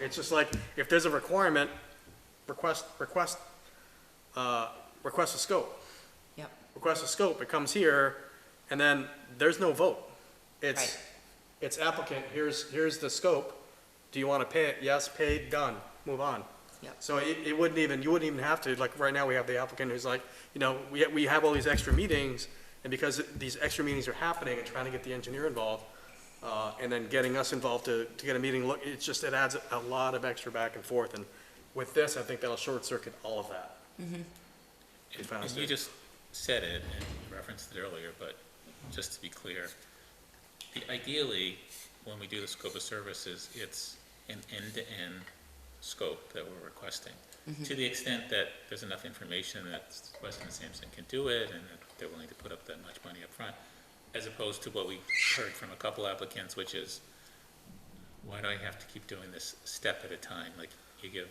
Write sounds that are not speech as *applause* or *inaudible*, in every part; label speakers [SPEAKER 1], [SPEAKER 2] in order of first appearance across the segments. [SPEAKER 1] It's just like, if there's a requirement, request, request, uh, request a scope.
[SPEAKER 2] Yep,
[SPEAKER 1] Request a scope, it comes here, and then there's no vote. It's,
[SPEAKER 2] Right.
[SPEAKER 1] it's applicant, here's, here's the scope. Do you want to pay it? Yes, paid, done, move on.
[SPEAKER 2] yep,
[SPEAKER 1] So it, it wouldn't even, you wouldn't even have to, like, right now, we have the applicant who's like, you know, we, we have all these extra meetings, and because these extra meetings are happening and trying to get the engineer involved, uh, and then getting us involved to, to get a meeting, look, it's just, it adds a lot of extra back and forth, and with this, I think that'll short circuit all of that.
[SPEAKER 3] And-
[SPEAKER 1] found
[SPEAKER 3] and
[SPEAKER 1] us
[SPEAKER 3] You
[SPEAKER 1] it.
[SPEAKER 3] just said it, and you referenced it earlier, but just to be clear, the- ideally, when we do the scope of services, it's an end-to-end scope that we're requesting. To the extent that there's enough information that Weston and Sampson can do it, and that they're willing to put up that much money up front, as opposed to what we heard from a couple applicants, which is, why do I have to keep doing this step at a time? Like, you give,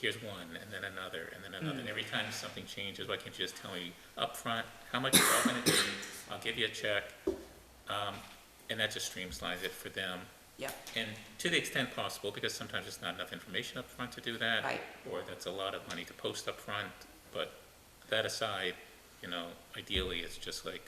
[SPEAKER 3] here's one, and then another, and then
[SPEAKER 2] Mm.
[SPEAKER 3] another, and every time something changes, why can't you just tell me upfront how much it's all gonna be? I'll give you a check, um, and that just streamlines it for them.
[SPEAKER 2] yep,
[SPEAKER 3] And to the extent possible, because sometimes it's not enough information upfront to do that.
[SPEAKER 2] Right.
[SPEAKER 3] Or that's a lot of money to post upfront, but that aside, you know, ideally, it's just like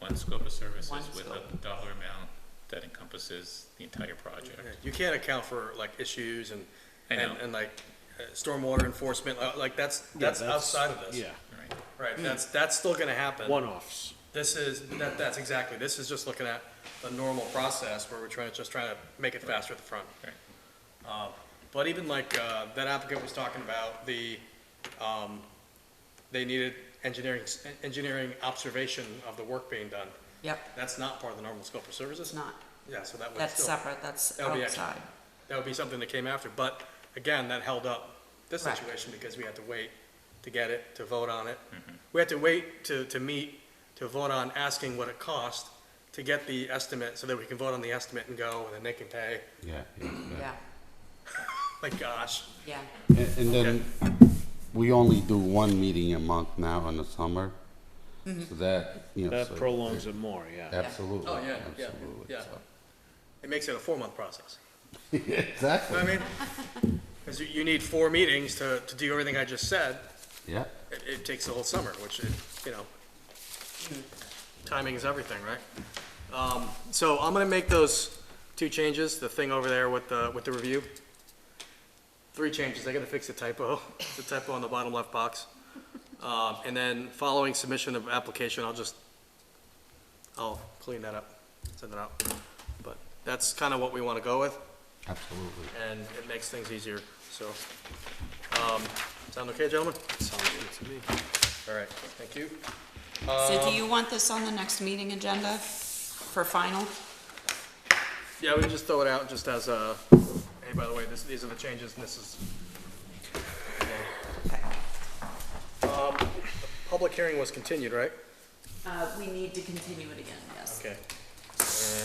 [SPEAKER 3] one scope of services
[SPEAKER 2] One
[SPEAKER 3] with a
[SPEAKER 2] scope.
[SPEAKER 3] dollar amount that encompasses the entire project.
[SPEAKER 1] You can't account for, like, issues and,
[SPEAKER 3] I
[SPEAKER 1] and,
[SPEAKER 3] know.
[SPEAKER 1] and like, uh, stormwater enforcement, uh, like, that's, that's outside of this.
[SPEAKER 4] Yeah,
[SPEAKER 3] Right.
[SPEAKER 1] Right, that's, that's still gonna happen.
[SPEAKER 4] one-offs.
[SPEAKER 1] This is, that, that's exactly, this is just looking at the normal process where we're trying, just trying to make it faster at the front.
[SPEAKER 3] Right.
[SPEAKER 1] Uh, But even like, uh, that applicant was talking about the, um, they needed engineering, engineering observation of the work being done.
[SPEAKER 2] yep,
[SPEAKER 1] That's not part of the normal scope of services?
[SPEAKER 2] it's not,
[SPEAKER 1] Yeah, so that would
[SPEAKER 2] that's
[SPEAKER 1] still,
[SPEAKER 2] separate, that's
[SPEAKER 1] That'll be extra.
[SPEAKER 2] outside,
[SPEAKER 1] that would be something that came after, but again, that held up this
[SPEAKER 2] Right.
[SPEAKER 1] situation because we had to wait to get it, to vote on it. We had to wait to, to meet, to vote on asking what it cost to get the estimate, so that we can vote on the estimate and go, and then they can pay.
[SPEAKER 5] Yeah.
[SPEAKER 2] yeah,
[SPEAKER 1] My gosh.
[SPEAKER 2] yeah,
[SPEAKER 5] And and then, we only do one meeting a month now in the summer, so that, you know.
[SPEAKER 4] That
[SPEAKER 5] so-
[SPEAKER 4] prolongs it more, yeah.
[SPEAKER 5] Absolutely.
[SPEAKER 1] Oh, Mm-hmm. yeah, yeah,
[SPEAKER 5] absolutely,
[SPEAKER 1] yeah.
[SPEAKER 5] so.
[SPEAKER 1] It makes it a four-month process.
[SPEAKER 5] *laughs* Exactly,
[SPEAKER 1] I mean, because you, you need four meetings to, to do everything I just said.
[SPEAKER 5] yeah,
[SPEAKER 1] It, it takes the whole summer, which, it- you know, timing is everything, right? Um, So I'm gonna make those two changes, the thing over there with the, with the review. Three changes, I gotta fix the typo, *laughs* the typo on the bottom left box. Um, And then following submission of application, I'll just, I'll clean that up, send it out. But that's kind of what we want to go with,
[SPEAKER 5] absolutely.
[SPEAKER 1] and it makes things easier, so. um, Sound okay, gentlemen? Sounds good to me. All right, thank you. Um,
[SPEAKER 2] so do you want this on the next meeting agenda for final?
[SPEAKER 1] Yeah, we can just throw it out just as a, hey, by the way, this, these are the changes and this is.
[SPEAKER 2] Okay.
[SPEAKER 1] Um, the Public hearing was continued, right?
[SPEAKER 2] Uh, we need to continue it again, yes.
[SPEAKER 1] Okay.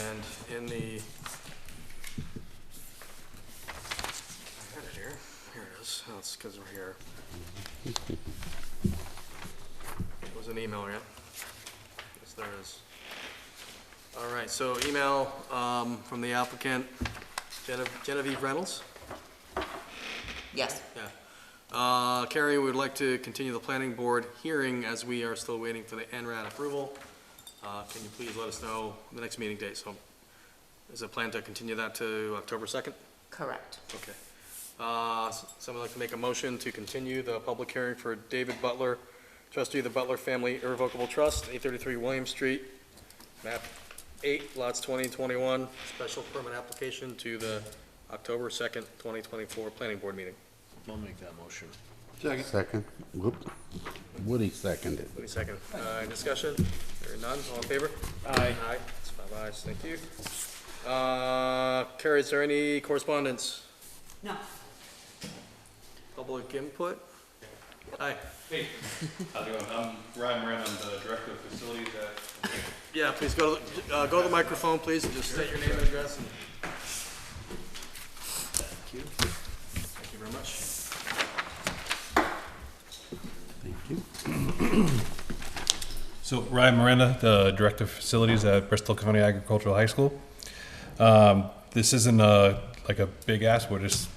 [SPEAKER 1] And in the. I had it here, here it is, oh, it's because we're here. It was an email, yeah? Yes, there is. All right, so email, um, from the applicant, Gene- Genevieve Reynolds?
[SPEAKER 2] Yes,
[SPEAKER 1] Yeah. Uh, Carrie, we would like to continue the planning board hearing as we are still waiting for the NRAD approval. Uh, Can you please let us know the next meeting date? So is it planned to continue that to October 2nd?
[SPEAKER 2] correct.
[SPEAKER 1] Okay. Uh, s- Someone like to make a motion to continue the public hearing for David Butler, trustee of the Butler Family Irrevocable Trust, 833 William Street, map 8, lots 20 and 21, special permit application to the October 2nd, 2024 planning board meeting.
[SPEAKER 4] I'll make that motion.
[SPEAKER 5] Second, whoop, Woody seconded.
[SPEAKER 1] Wait a second. Uh, any discussion? There are none. All in favor?
[SPEAKER 4] Aye.
[SPEAKER 1] Aye. It's five ayes. Thank you. Uh, Carrie, is there any correspondence?
[SPEAKER 2] No,
[SPEAKER 1] Public input? Aye.
[SPEAKER 6] Hey, how's it going? I'm Um, Ryan Moran, I'm the director of facilities at,
[SPEAKER 1] Yeah, please go, to the- uh, go to the microphone, please, and just state your name and address and. Thank you. Thank you very much.
[SPEAKER 5] Thank you.
[SPEAKER 6] so Ryan Miranda, the director of facilities at Bristol County Agricultural High School. Um, This isn't a, like like a big ass, we're just